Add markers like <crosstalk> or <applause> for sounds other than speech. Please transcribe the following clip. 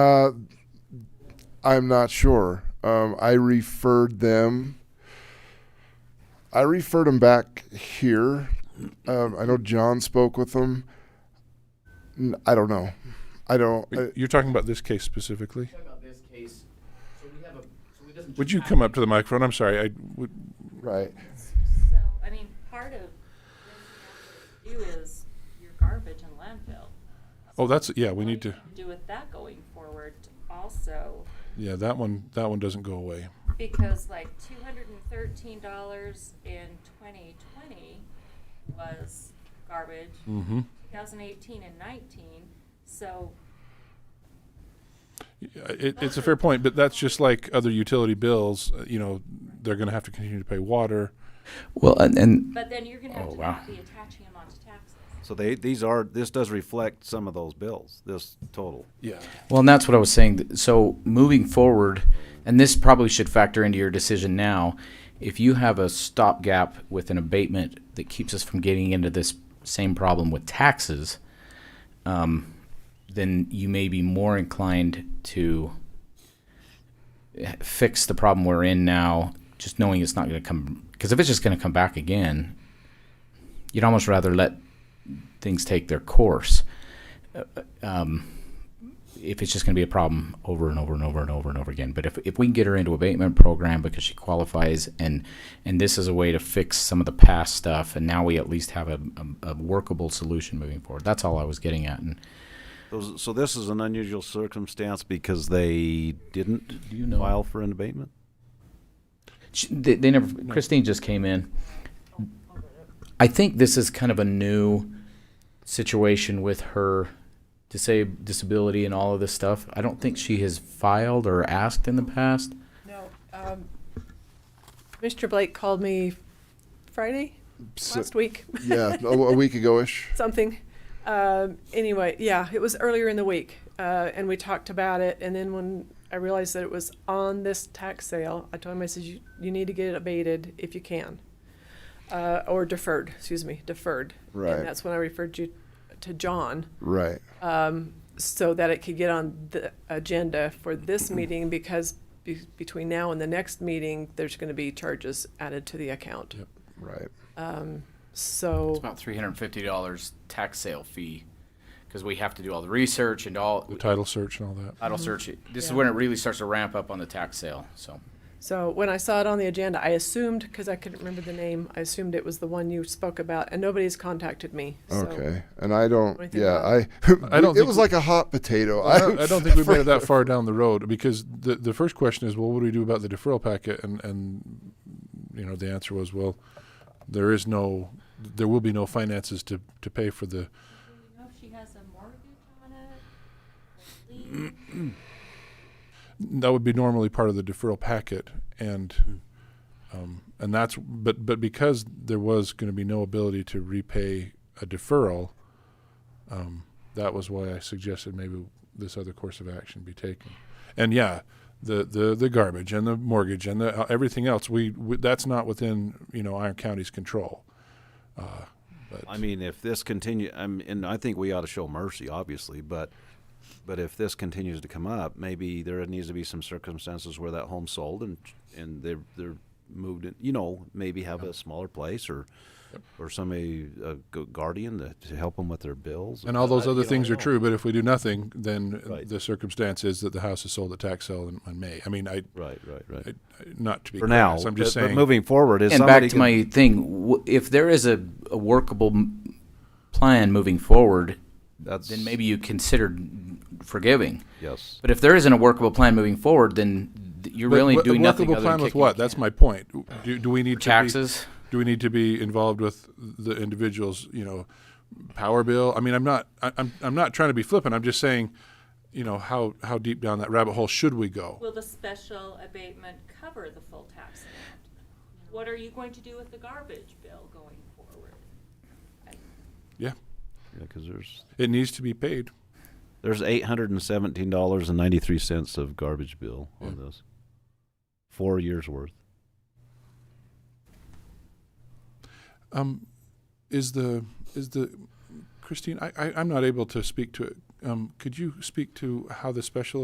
Uh, I'm not sure. Um, I referred them. I referred them back here. Um, I know John spoke with them. N- I don't know. I don't. I, You're talking about this case specifically? Talk about this case, so we have a, so we doesn't. Would you come up to the microphone? I'm sorry, I would, right. So, I mean, part of what you have to do is your garbage and landfill. oh, that's, yeah, we What need to, you can Do with that going forward also, yeah, that one, that one doesn't go away. because like two hundred and thirteen dollars in twenty twenty was garbage. Mm-hmm. Two thousand eighteen and nineteen, so It, it's a fair point, but that's just like other utility bills, uh, you know, they're gonna have to continue to pay water. Well, and, and But then you're gonna Oh, have to not be attaching them onto taxes. So they, these are, this does reflect some of those bills, this total. Yeah. well, and that's what I was saying. Th- So moving forward, and this probably should factor into your decision now. If you have a stopgap with an abatement that keeps us from getting into this same problem with taxes, um, then you may be more inclined to eh, fix the problem we're in now, just knowing it's not going to come. Because if it's just going to come back again, you'd almost rather let things take their course. Uh, um, if it's just going to be a problem over and over and over and over and over again. But if, if we can get her into abatement program because she qualifies and and this is a way to fix some of the past stuff, and now we at least have a, a, a workable solution moving forward. That's all I was getting at. And Those, so this is an unusual circumstance because they didn't Do you know- file for an abatement? she, they, they never. Christine just came in. I think this is kind of a new situation with her disab- disability and all of this stuff. I don't think she has filed or asked in the past. No, um, Mr. Blake called me Friday, So- last week, <laughs> yeah, a, a week ago ish. something. Um, anyway, yeah, it was earlier in the week, uh, and we talked about it, and then when I realized that it was on this tax sale, I told him, I said, you, you need to get it abated if you can. Uh, or deferred, excuse me, deferred. Right. And that's when I referred you to John. Right. so that it could get on the agenda for this meeting because be- between now and the next meeting, there's going to be charges added to the account. Right. It's So, about three hundred and fifty dollars tax sale fee, because we have to do all the research and all, The title search and all that. title search. This is when it really starts to ramp up on the tax sale, so. so when I saw it on the agenda, I assumed, because I couldn't remember the name, I assumed it was the one you spoke about and nobody's contacted me. So- Okay. And I don't. What do you yeah. I. I <laughs> don't It think was we- like a hot potato. I don't, I don't think we made <laughs> it that far down the road because the the first question is, well, what do we do about the deferral packet? And and you know the answer was, well, there is no, there will be no finances to to pay for the. You know, if she has a mortgage on it, a lien, That would be normally part of the deferral packet, and um, and that's but but because there was going to be no ability to repay a deferral, um, that was why I suggested maybe this other course of action be taken. And yeah, the the, the garbage and the mortgage and the uh, everything else we, we that's not within you know Iron County's control. Uh, but I mean, if this continue, I mean, and I think we ought to show mercy, obviously, but, but if this continues to come up, maybe there needs to be some circumstances where that home's sold and, and they're, they're moved, in, you know, maybe have a smaller place or, or somebody, a gu- guardian to, to help them with their bills. and all those I- other you know, things I are don't- true, but if we do nothing, then Right. the circumstance is that the house is sold at tax sale in, in May. I mean, I, Right, right, right. I not to be For now, crass, I'm just but- saying. But moving forward, is And somebody back to can- my thing, w- if there is a, a workable m- plan moving forward, That's then maybe you consider forgiving. yes. But if there isn't a workable plan moving forward, then th- you're But really what- doing nothing workable other than plan with kicking what? the That's can. my point. Do, do we need to be- Taxes? do we need to be involved with the individual's you know power bill? I mean, I'm not I, I'm I'm not trying to be flippant. I'm just saying, you know, how how deep down that rabbit hole should we go? Will the special abatement cover the full tax amount? What are you going to do with the garbage bill going forward? Yeah, Because there's it needs to be paid. there's eight hundred and seventeen dollars and ninety three cents of garbage bill on Hmm. this. Four years worth. Um, is the is the Christine? I, I I'm not able to speak to it. Um, could you speak to how the special